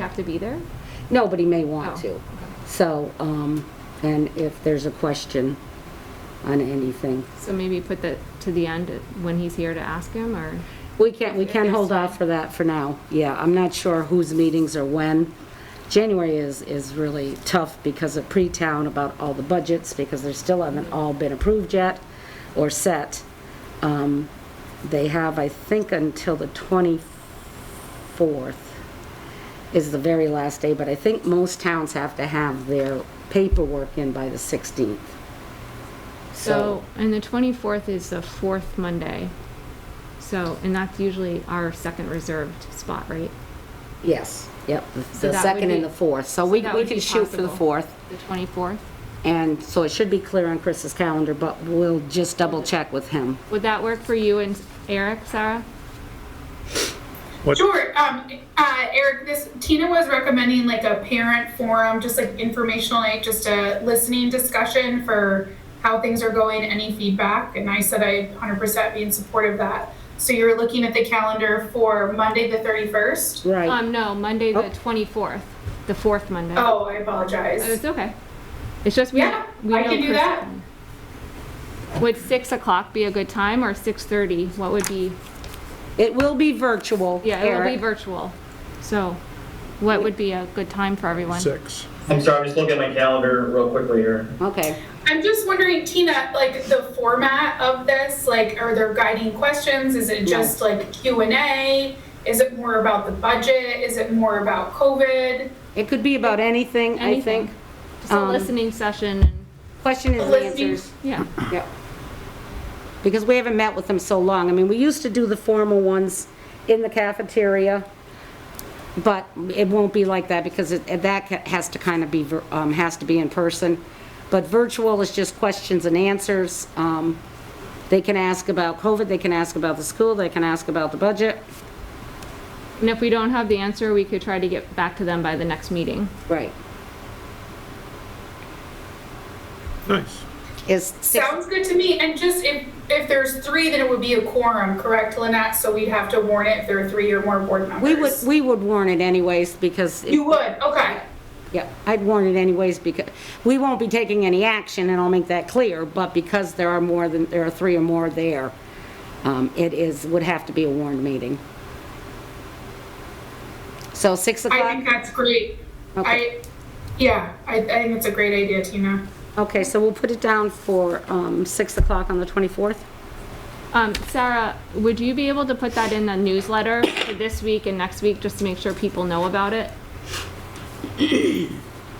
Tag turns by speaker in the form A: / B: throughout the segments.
A: have to be there?
B: Nobody may want
A: Oh,
B: to. So, um, and if there's a question on anything,
A: So maybe put that to the end, uh, when he's here to ask him, or?
B: we can, we
A: If
B: can
A: there's
B: hold off
A: time.
B: for that for now. Yeah, I'm not sure whose meetings are when. January is, is really tough because of pre-town about all the budgets, because they still haven't all been approved yet or set. Um, they have, I think, until the 24th is the very last day, but I think most towns have to have their paperwork in by the 16th.
A: So, and the 24th is the fourth Monday. So, and that's usually our second reserved spot, right?
B: Yes, yep, the-
A: So
B: the
A: that
B: second
A: would
B: and
A: be-
B: the fourth. So
A: so
B: Oh, we,
A: that
B: we
A: would
B: can
A: be
B: shoot for the
A: possible.
B: fourth.
A: The 24th?
B: And so it should be clear on Chris's calendar, but we'll just double check with him.
A: Would that work for you and Eric, Sarah?
C: What-
D: Sure. Um, uh, Eric, this Tina was recommending like a parent forum, just like informational, like just a listening discussion for how things are going, any feedback. And I said I 100% be in support of that. So you're looking at the calendar for Monday the 31st.
B: Right.
A: Um, no, Monday, the
B: Oh.
A: 24th, the fourth Monday.
D: Oh, I
A: Oh, It's
D: apologize.
A: okay. It's just we.
D: Yeah,
A: we
D: I
A: know
D: can do
A: Chris-
D: that.
A: Would six o'clock be a good time or six thirty? What would be?
B: It will be virtual,
A: Yeah, it will be
B: Eric.
A: virtual. So, what would be a good time for everyone?
C: Six.
E: I'm sorry, I'm just looking at my calendar real quickly here.
B: Okay.
D: I'm just wondering, Tina, like the format of this, like are there guiding questions? Is it just like Q and A? Is it more about the budget? Is it more about COVID?
B: It could be about anything, I
A: Anything.
B: think.
A: Just a
B: um,
A: listening session. and-
B: Question is
D: Listening.
B: answers.
A: Yeah.
B: Yep. Because we haven't met with them so long. I mean, we used to do the formal ones in the cafeteria, but it won't be like that because it- that ca- has to kind of be, vir- um, has to be in person. But virtual is just questions and answers. Um, They can ask about COVID, they can ask about the school, they can ask about the budget.
A: And if we don't have the answer, we could try to get back to them by the next meeting.
B: Right.
C: Nice.
B: Is six,
D: Sounds good to me, and just if, if there's three, then it would be a quorum, correct, Lynette? So we'd have to warn it if there are three or more board members.
B: we would, we would warn it anyways because. it-
D: You would, okay.
B: Yeah, I'd warn it anyways because, we won't be taking any action, and I'll make that clear, but because there are more than, there are three or more there, um, it is, would have to be a warned meeting. So 6
D: I think
B: o'clock?
D: that's great.
B: Okay.
D: I, yeah, I, I think it's a great idea, Tina.
B: Okay, so we'll put it down for um, 6 o'clock on the 24th?
A: Um, Sarah, would you be able to put that in the newsletter for this week and next week, just to make sure people know about it?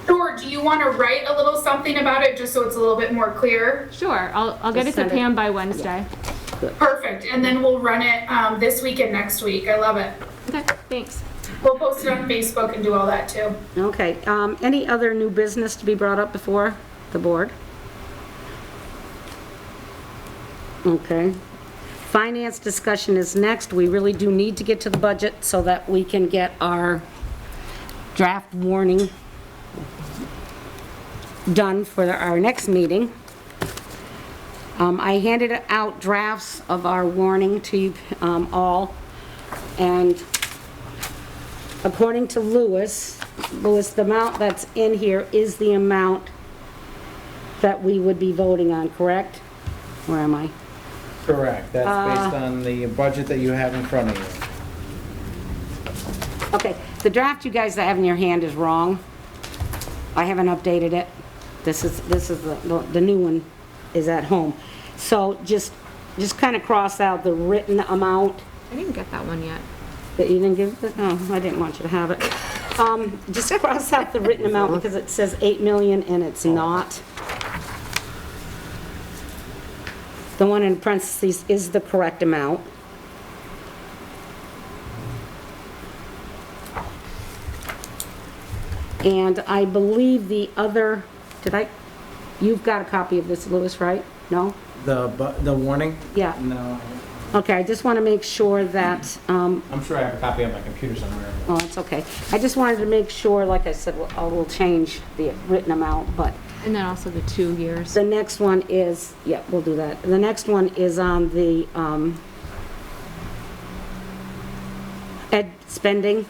D: Sure, do you want to write a little something about it, just so it's a little bit more clear?
A: Sure, I'll, I'll get it
B: Just
A: to
B: send it.
A: Pam by Wednesday.
D: Perfect, and then we'll run it, um, this week and next week, I love it.
A: Okay, thanks.
D: We'll post it on Facebook and do all that too.
B: Okay, um, any other new business to be brought up before the board? Okay. Finance discussion is next. We really do need to get to the budget so that we can get our draft warning done for our next meeting. Um, I handed out drafts of our warning to you, um, all, and according to Lewis, Lewis, the amount that's in here is the amount that we would be voting on, correct? Where am I?
F: Correct, that's based on the budget that you have in front of you.
B: Okay, the draft you guys have in your hand is wrong. I haven't updated it. This is, this is, the the the new one is at home. So just, just kind of cross out the written amount
A: I didn't get that one yet.
B: that you didn't give, it? no, I didn't want you to have it. Um, Just cross out the written amount because it says 8 million and it's not. The one in parentheses is the correct amount. And I believe the other, did I, you've got a copy of this, Lewis, right? No?
F: The, bu- the warning?
B: Yeah.
F: No,
B: Okay, I just want to make sure that um,
F: I'm sure I have a copy on my computer somewhere.
B: Oh, it's okay. I just wanted to make sure, like I said, we'll- I will change the written amount, but
A: And then also the two years.
B: the next one is, yeah, we'll do that. The next one is on the um, ed spending.